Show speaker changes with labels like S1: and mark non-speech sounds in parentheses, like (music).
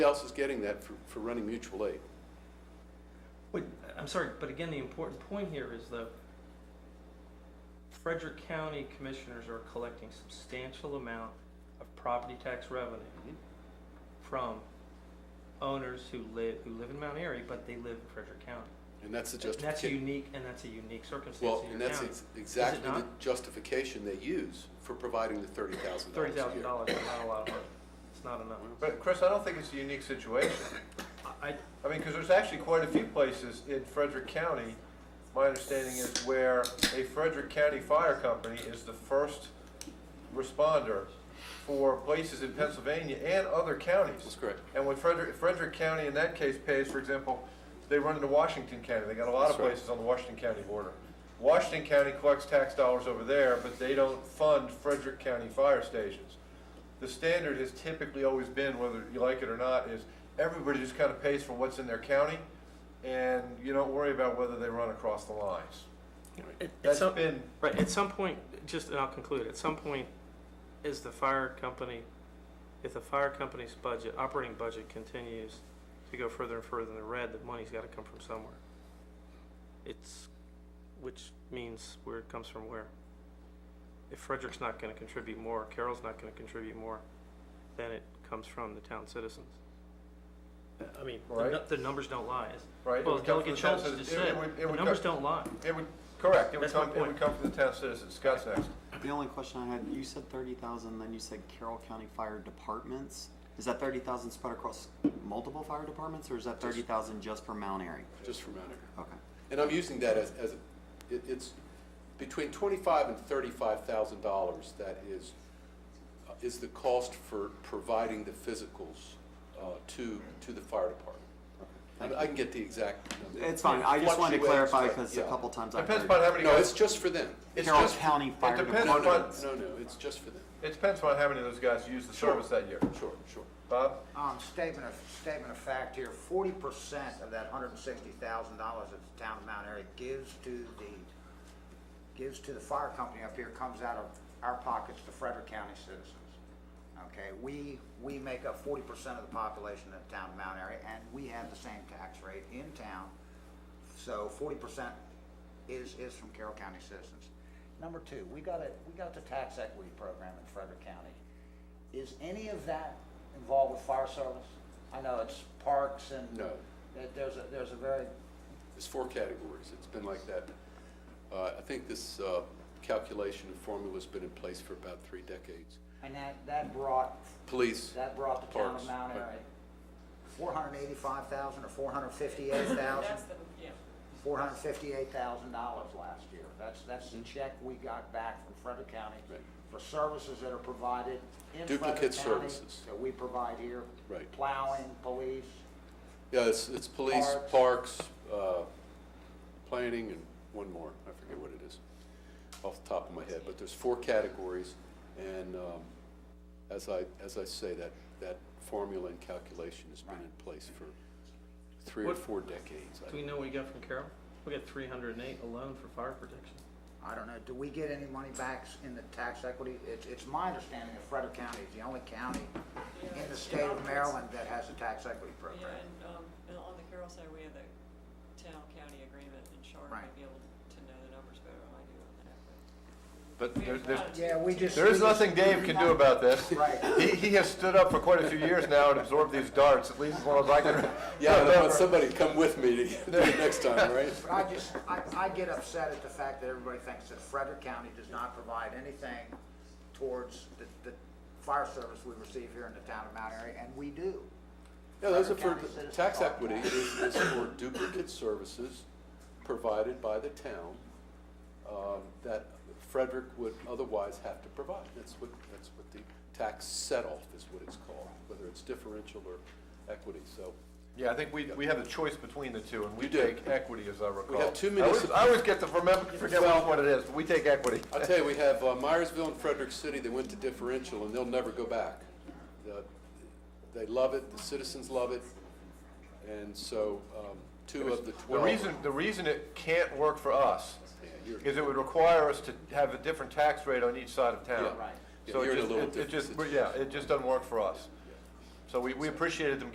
S1: else is getting that for, for running mutual aid.
S2: Wait, I'm sorry, but again, the important point here is though, Frederick County commissioners are collecting substantial amount of property tax revenue
S1: Mhm.
S2: from owners who live, who live in Mount Airy, but they live in Frederick County.
S1: And that's the
S2: And That's
S1: justification.
S2: unique, and that's a unique circumstance
S1: Well,
S2: in
S1: and
S2: your
S1: that's
S2: county.
S1: ex- exactly the
S2: not?
S1: justification they use for providing the thirty thousand
S2: Thirty
S1: dollars a
S2: thousand
S1: year.
S2: dollars is not a lot of money. It's not enough.
S3: But Chris, I don't think it's a unique situation.
S2: I, I-
S3: I mean, because there's actually quite a few places in Frederick County, my understanding is where a Frederick County Fire Company is the first responder for places in Pennsylvania and other
S1: That's
S3: counties.
S1: correct.
S3: And when Frederick, Frederick County in that case pays, for example, they run into Washington County, they got a lot of
S1: That's right.
S3: places on the Washington County border. Washington County collects tax dollars over there, but they don't fund Frederick County fire stations. The standard has typically always been, whether you like it or not, is everybody just kind of pays for what's in their county, and you don't worry about whether they run across the lines.
S2: it-
S3: That's
S2: it's so-
S3: been,
S2: Right, at some point, just, and I'll conclude, at some point, is the fire company, if the fire company's budget, operating budget continues to go further and further in the red, the money's gotta come from somewhere. It's, which means where it comes from where. If Frederick's not gonna contribute more, Carroll's not gonna contribute more, then it comes from the town citizens. I mean, the, nu-
S3: Right.
S2: the numbers don't lie, It's-
S3: right? it
S2: well,
S3: would come
S2: Delegate
S3: from the town
S2: Schultz just
S3: citizens. It- it
S2: said,
S3: would- it
S2: the
S3: would
S2: numbers
S3: come-
S2: don't lie.
S3: It would, correct, it would
S2: That's my
S3: come, it would
S2: point.
S3: come from the town citizens. Scott's next.
S4: The only question I had, you said thirty thousand, then you said Carroll County Fire Departments. Is that thirty thousand spread across multiple fire departments, or is that thirty thousand just for Mount Airy?
S1: Just for Mount Airy.
S4: Okay.
S1: And I'm using that as, as, a- it, it's between twenty-five and thirty-five thousand dollars that is, uh, is the cost for providing the physicals, uh, to, to the fire department. I mean, I can get the exact number.
S4: It's fine, I just wanted to
S1: Fluctuates,
S4: clarify,
S1: but,
S4: because a
S1: yeah.
S4: couple times I've
S3: Depends
S4: heard
S3: upon how many
S1: No,
S3: guys,
S1: it's just for them.
S3: it's
S4: Carroll
S3: just-
S4: County Fire
S3: depends upon-
S1: No,
S4: Departments.
S1: no, no, no, it's just for them.
S3: it depends upon how many of those guys use the
S1: Sure.
S3: service that year.
S1: Sure, sure.
S3: Bob?
S5: Um, statement of, statement of fact here, forty percent of that hundred and sixty thousand dollars that the town of Mount Airy gives to the, gives to the fire company up here comes out of our pockets to Frederick County citizens. Okay, we, we make up forty percent of the population of the town of Mount Airy, and we have the same tax rate in town. So forty percent is, is from Carroll County citizens. Number two, we got it, we got the tax equity program in Frederick County. Is any of that involved with fire service? I know it's parks and.
S1: No.
S5: that There's a, there's a very,
S1: There's four categories. It's been like that. Uh, I think this, uh, calculation and formula's been in place for about three decades.
S5: and that, that brought,
S1: Police,
S5: that brought the town
S1: Parks,
S5: of Mount
S1: right.
S5: Airy four hundred and eighty-five thousand or four hundred and fifty-eight thousand,
S6: (laughs) That's the, yeah.
S5: four hundred and fifty-eight thousand dollars last year. That's, that's the check we got back from Frederick County
S1: Right.
S5: for services that are provided in Frederick County.
S1: Duplicate services.
S5: That we provide here.
S1: Right.
S5: Plowing, police,
S1: Yeah, it's, it's police, parks, uh, planning, and one more, I forget what it is, off the top of my head, but there's four categories, and, um, as I, as I say, that, that formula and calculation has been in place for three or
S2: What-
S1: four decades. I
S2: Do we know what we got from Carroll? We got three hundred and eight alone for fire protection.
S5: I don't know, do we get any money back in the tax equity? It's, it's my understanding that Frederick County is the only county in the state of Maryland that has a tax equity
S6: Yeah,
S5: program.
S6: and, um, and on the Carroll side, we have the town-county agreement, and Sharon
S5: Right.
S6: might be able to know the numbers better than I do on that, but.
S3: But
S6: we
S3: there-
S6: have
S3: there's,
S6: not-
S5: Yeah, we just.
S3: there is
S5: we just-
S3: nothing Dave can do about this.
S1: (laughs)
S5: (laughs) Right.
S3: He, he has stood up for quite a few years now and absorbed these darts, at least as long as I can.
S1: (laughs) Yeah, I want
S3: remember.
S1: somebody to come with me to do (laughs) it next time, right?
S5: But I just, I, I get upset at the fact that everybody thinks that Frederick County does not provide anything towards the, the fire service we receive here in the town of Mount Airy, and we do.
S1: Yeah, those are
S5: Frederick
S1: for,
S5: County citizens
S1: tax
S5: are-
S1: equity is, is for duplicate services provided by the town, um, that Frederick would otherwise have to provide. That's what, that's what the tax set-off is what it's called, whether it's differential or equity, so.
S3: Yeah, I think we, we have a choice between the two, and we
S1: You do.
S3: take equity, as I recall.
S1: have two
S3: I always-
S1: municipal-
S3: I always get to
S1: (laughs)
S3: remember, forget which
S1: Well-
S3: one it is, but we take equity.
S1: I'll tell you, we have uh, Myersville and Frederick City, they went to differential and they'll never go back. The- They love it, the citizens love it, and so, um, two of the
S3: The
S1: twelve.
S3: reason, the reason it can't work for us
S1: Yeah, you're-
S3: is it would require us to have a different tax rate on each side of town.
S1: Yeah. Right. Yeah,
S3: So
S1: you're
S3: it
S1: in a
S3: just,
S1: little
S3: it- it
S1: different
S3: just,
S1: situation.
S3: yeah, it just doesn't work for us. So we, we appreciated them